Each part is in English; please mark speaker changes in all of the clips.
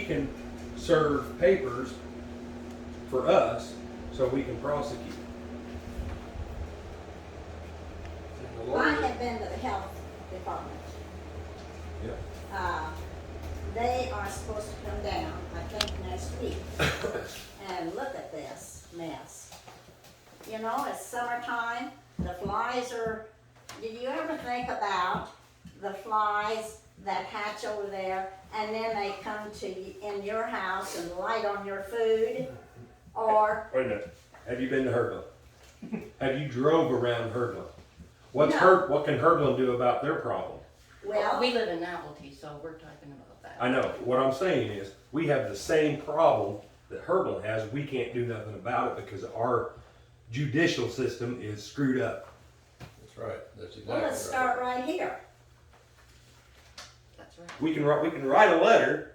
Speaker 1: can serve papers for us so we can prosecute. And the
Speaker 2: I
Speaker 1: lawyer-
Speaker 2: have been to the health department.
Speaker 1: Yeah.
Speaker 2: Uh, They are supposed to come down, I think next week, and look at this mess. You know, it's summertime, the flies are, did you ever think about the flies that hatch over there? And then they come to, y- in your house and light on your food, or
Speaker 1: Wait a minute. Have you been to Hurdle? Have you drove around Hurdle? What's
Speaker 2: No.
Speaker 1: Hur- what can Hurdle do about their problem?
Speaker 2: Well,
Speaker 3: We live in Alty, so we're talking about that.
Speaker 1: I know. What I'm saying is, we have the same problem that Hurdle has. We can't do nothing about it because our judicial system is screwed up.
Speaker 4: That's right, that's exactly
Speaker 2: well,
Speaker 4: right.
Speaker 2: let's start right here.
Speaker 3: That's right.
Speaker 1: We can write, we can write a letter.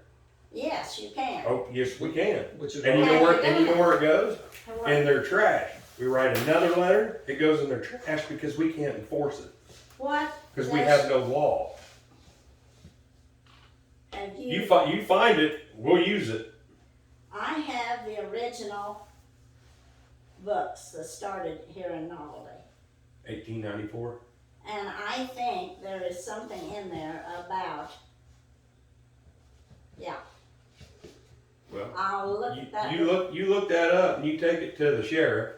Speaker 2: Yes, you can.
Speaker 1: Oh, yes, we can.
Speaker 4: Which is,
Speaker 1: And you
Speaker 4: why-
Speaker 1: know where, and you know where it goes?
Speaker 2: Hello?
Speaker 1: In their trash. We write another letter, it goes in their trash because we can't enforce it,
Speaker 2: What?
Speaker 1: because we
Speaker 2: does-
Speaker 1: have no law.
Speaker 2: Have
Speaker 1: You
Speaker 2: you,
Speaker 1: fi- you find it, we'll use it.
Speaker 2: I have the original books that started here in Novelty.
Speaker 1: Eighteen ninety-four.
Speaker 2: And I think there is something in there about, yeah,
Speaker 1: Well,
Speaker 2: I'll look
Speaker 1: You,
Speaker 2: at that.
Speaker 1: you look you look that up and you take it to the sheriff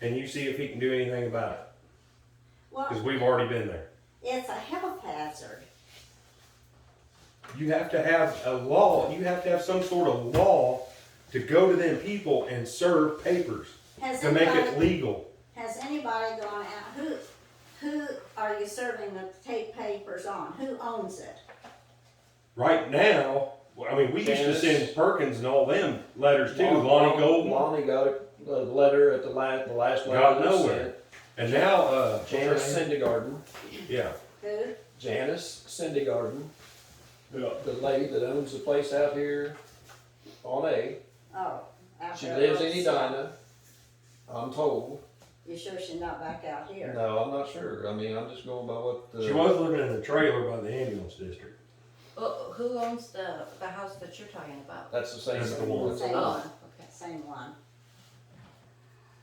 Speaker 1: and you see if he can do anything about it because
Speaker 2: Well,
Speaker 1: we've already been there.
Speaker 2: it's a health hazard.
Speaker 1: You have to have a law. You have to have some sort of law to go to them people and serve papers
Speaker 2: Has
Speaker 1: to make it
Speaker 2: anybody,
Speaker 1: legal.
Speaker 2: has anybody gone out, who, who are you serving the tape papers on? Who owns it?
Speaker 1: Right now, well, I mean, we used to
Speaker 4: Janice.
Speaker 1: send Perkins and all them letters too, Lonnie Golden,
Speaker 4: Lonnie got a, a letter at the last, the last letter.
Speaker 1: Got
Speaker 4: that was
Speaker 1: nowhere.
Speaker 4: sent.
Speaker 1: and now uh, what's her
Speaker 4: Janice
Speaker 1: name?
Speaker 4: Syndergarden,
Speaker 1: yeah,
Speaker 2: Who?
Speaker 4: Janice Syndergarden,
Speaker 1: yeah.
Speaker 4: the lady that owns the place out here on A.
Speaker 2: Oh. out
Speaker 4: She
Speaker 2: there
Speaker 4: lives
Speaker 2: on
Speaker 4: in
Speaker 2: the-
Speaker 4: Edina, I'm told.
Speaker 2: You sure she's not back out here?
Speaker 4: No, I'm not sure. I mean, I'm just going by what the.
Speaker 1: She was living in a trailer by the ambulance district.
Speaker 3: Well, who owns the, the house that you're talking about?
Speaker 4: That's the same.
Speaker 1: That's the one.
Speaker 2: Same one,
Speaker 3: Oh, okay.
Speaker 2: same one.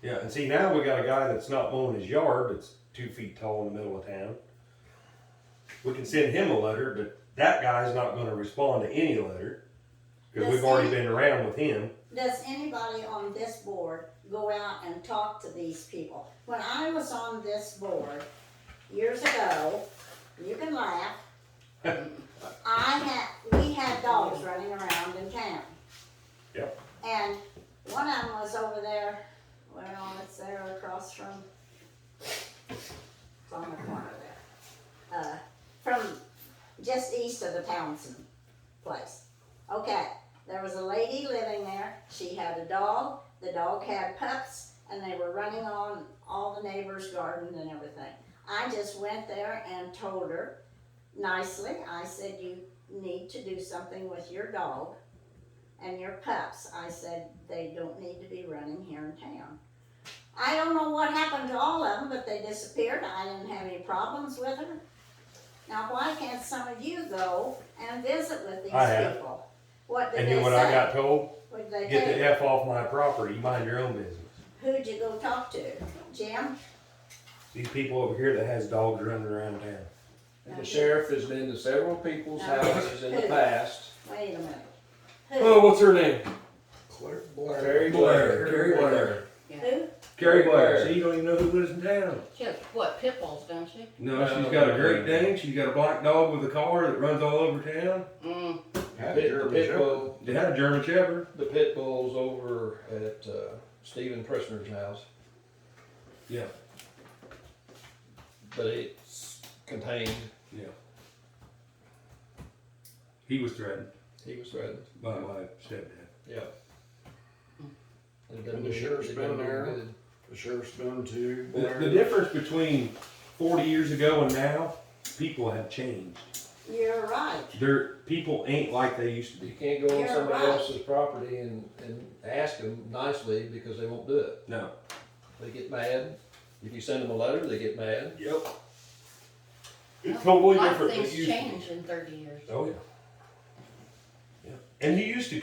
Speaker 1: Yeah, and see now we got a guy that's not mowing his yard that's two feet tall in the middle of town. We can send him a letter, but that guy's not going to respond to any letter because we've already been around with him.
Speaker 2: Does anybody on this board go out and talk to these people? When I was on this board years ago, you can laugh. I had, we had dogs running around in town.
Speaker 1: Yep.
Speaker 2: And one of them was over there, well, it's there across from, it's on the corner there. Uh, from just east of the Townsend place. Okay, there was a lady living there. She had a dog. The dog had pups, and they were running on all the neighbors' garden and everything. I just went there and told her nicely. I said, You need to do something with your dog and your pups. I said, They don't need to be running here in town. I don't know what happened to all of them, but they disappeared. I didn't have any problems with them. Now, why can't some of you go and visit with these
Speaker 1: I have.
Speaker 2: people? What did
Speaker 1: And
Speaker 2: they
Speaker 1: you know what
Speaker 2: say?
Speaker 1: I got told?
Speaker 2: What'd they
Speaker 1: Get the
Speaker 2: do?
Speaker 1: F off my property, mind your own business.
Speaker 2: Who'd you go talk to? Jim?
Speaker 1: These people over here that has dogs running around town.
Speaker 4: The sheriff has been to several people's houses in the past.
Speaker 2: Wait a minute.
Speaker 1: Oh,
Speaker 2: Who?
Speaker 1: what's her name?
Speaker 4: Claire Blair. Terry Blair.
Speaker 1: Terry Blair.
Speaker 2: Who?
Speaker 1: Carrie Blair.
Speaker 4: Blair.
Speaker 1: See, you don't even know who lives in town.
Speaker 3: She has, what, pit bulls, don't she?
Speaker 1: No, she's got a Great Dane. She's got a black dog with a collar that runs all over town.
Speaker 3: Mm,
Speaker 4: The pit- the pit bull,
Speaker 1: They had a German Shepherd.
Speaker 4: the pit bulls over at uh, Stephen Prisoner's house.
Speaker 1: Yeah.
Speaker 4: But it's contained.
Speaker 1: Yeah. He was threatened
Speaker 4: He was threatened.
Speaker 1: by my stepdad.
Speaker 4: Yeah.
Speaker 5: And the sheriff's been there. The sheriff's done too.
Speaker 1: The, the difference between 40 years ago and now, people have changed.
Speaker 2: You're right.
Speaker 1: They're, people ain't like they used to
Speaker 4: You
Speaker 1: be.
Speaker 4: can't go on
Speaker 2: You're
Speaker 4: somebody
Speaker 2: right.
Speaker 4: else's property and, and ask them nicely because they won't do it.
Speaker 1: No.
Speaker 4: They get mad. If you send them a letter, they get mad.
Speaker 1: Yep. It's
Speaker 3: a
Speaker 1: totally
Speaker 3: lot of
Speaker 1: different. than it
Speaker 3: things
Speaker 1: used to be.
Speaker 3: change in thirty years.
Speaker 1: Oh, yeah. yeah. And you used to